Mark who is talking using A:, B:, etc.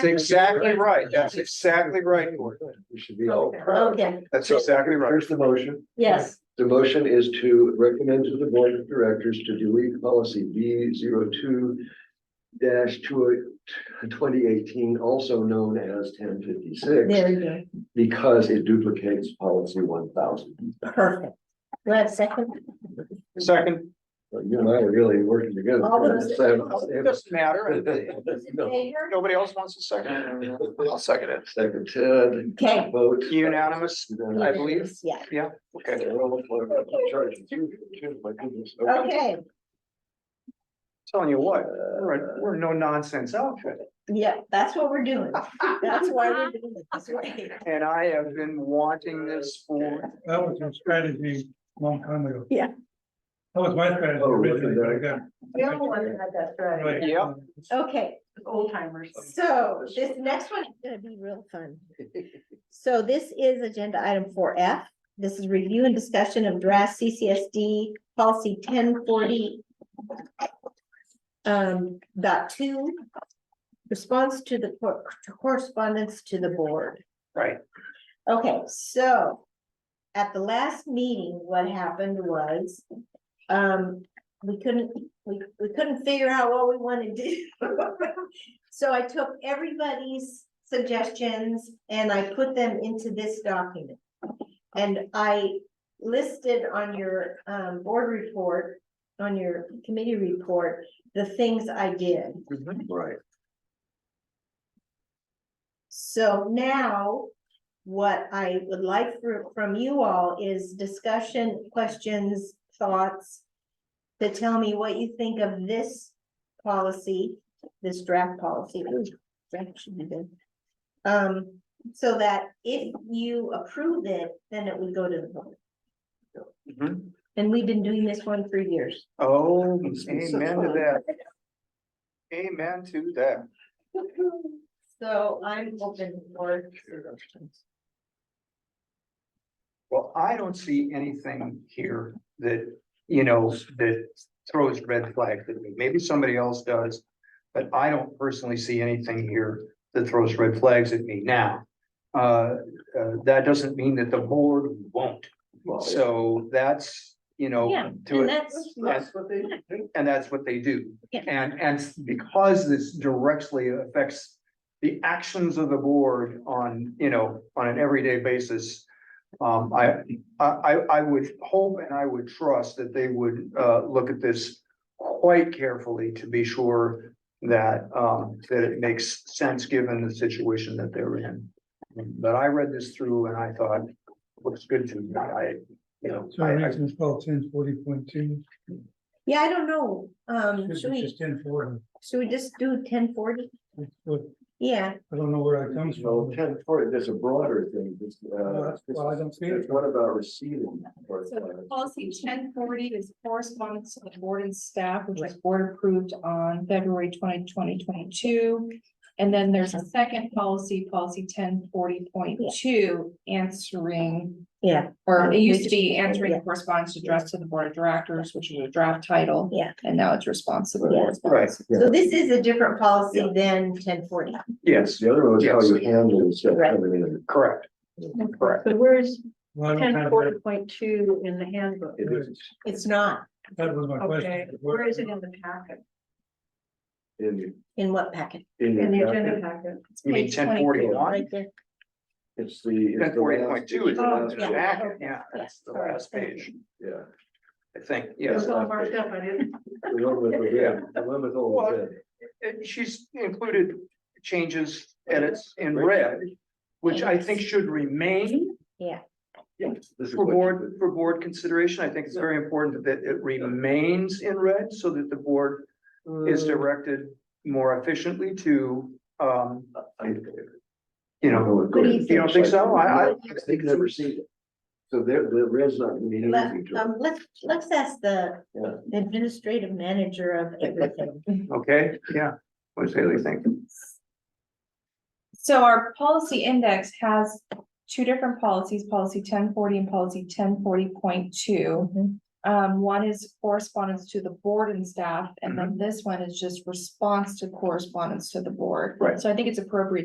A: exactly right. That's exactly right, Gordon.
B: We should be all proud.
C: Okay,
A: That's exactly right.
B: Here's the motion.
C: yes,
B: The motion is to recommend to the board of directors to delete policy B 2 two, oh, twenty eighteen, also known as ten fifty-six,
C: there you go.
B: because it duplicates policy one thousand.
C: Perfect. Do I have a second?
A: Second,
B: You and I are really working together.
C: All those-
A: it doesn't matter.
C: Those in favor?
A: Nobody else wants a second? I'll second it.
B: Second, Ted,
C: Okay.
B: vote.
A: Unanimous, I believe.
C: Yeah,
A: Yeah, okay.
B: Okay.
C: okay,
A: Telling you what, we're, a- we're no nonsense outfit.
C: yeah, that's what we're doing. That's why we're doing it this way.
A: And I have been wanting this for,
D: That was your strategy a long time ago.
C: Yeah.
D: That was my strategy
B: Oh, really?
D: originally, but I got.
E: We all want to have that
D: right.
E: strategy,
A: Yeah.
C: Okay,
E: old timers.
C: so this next one is gonna be real fun. So this is agenda item four F. This is review and discussion of draft CCSD policy ten forty. Um, dot two. Response to the cor- to correspondence to the board.
A: right,
C: Okay, so. At the last meeting, what happened was. Um, we couldn't, we, we couldn't figure out what we wanted to do. So I took everybody's suggestions and I put them into this document. And I listed on your um board report, on your committee report, the things I did.
A: Mhm.
B: Right.
C: So now, what I would like for, from you all is discussion, questions, thoughts. To tell me what you think of this policy, this draft policy. Ooh, draft should be good. Um, so that if you approve it, then it would go to the vote.
A: Mhm.
C: And we've been doing this one for years.
A: Oh, amen to that. Amen to that.
C: So I'm open for.
A: Well, I don't see anything here that, you know, that throws red flags at me. Maybe somebody else does. But I don't personally see anything here that throws red flags at me now. Uh, uh, that doesn't mean that the board won't. So that's, you
C: Yeah,
A: know, to
C: and
A: it,
C: that's-
A: that's
B: what they
A: and that's what they do.
C: Yeah.
A: And, and because this directly affects the actions of the board on, you know, on an everyday basis. Um, I, I, I, I would hope and I would trust that they would, uh, look at this quite carefully to be sure that, um, that it makes sense given the situation that they're in. But I read this through and I thought, looks good to me, I, you know.
D: So
A: I- I-
D: our next one's called ten forty point two.
C: Yeah, I don't know.
E: Oh,
C: Um,
D: This
C: should
D: is
C: we,
D: just ten forty.
C: should we just do ten forty? Yeah,
D: I don't know where that comes
B: Well,
D: from.
B: ten forty, there's a broader thing, this,
D: Well,
B: uh,
D: that's- well, I don't see it.
B: it's not about receiving. or-
E: So policy ten forty is correspondence of the board and staff, which was board approved on February 20, 2022, And then there's a second policy, policy ten forty point two, answering,
C: yeah,
E: or it used to be
C: Yeah.
E: answering correspondence addressed to the board of directors, which is a draft title.
C: Yeah.
E: And now it's responsible.
C: Yeah.
A: Right,
C: so this is a different policy
B: Yeah.
C: than ten forty.
A: yes,
B: The other one is how you handle stuff
C: Right.
B: coming in.
A: correct, correct.
F: But where's
D: Well, I don't
F: ten
D: have
F: forty
D: That
F: point two in the handbook?
B: It is
C: It's not
D: That was my
F: Okay,
D: question.
F: where is it in the packet?
B: in,
C: in what packet?
B: in
F: In the agenda
B: the,
F: packet?
A: You mean
E: Page
A: ten
E: 24.
A: forty-one?
C: Right there.
B: it's the. it's the
A: Ten forty point two is the
F: Oh,
A: last
C: yeah.
A: packet, yeah, that's the
F: All right,
A: last
F: thank
A: page,
B: Yeah.
A: I think,
F: It
A: yes.
F: was all marked up, I didn't.
B: The one with the red, the one with all the
A: Well,
B: red.
A: And Uh, she's included changes, edits in red, which I think should remain
B: This is
A: for
B: what-
A: board, for board consideration. I think it's very important that it remains in red so that the board
B: Uh,
A: is directed more efficiently to, um,
B: Uh, I-
A: you know,
B: What
C: do you
A: you don't think so? I, I,
B: They've never seen it. So there, the red's not gonna mean
C: Let,
B: anything to
C: um, let's, let's ask the
B: Yeah.
C: administrative manager of everything.
A: okay, yeah, what's Haley think?
E: So our policy index has two different policies, policy ten forty and policy ten forty point two. Um, one is correspondence to the board and staff, and then this one is just response to correspondence to the board.
A: Right.
E: So I think it's appropriate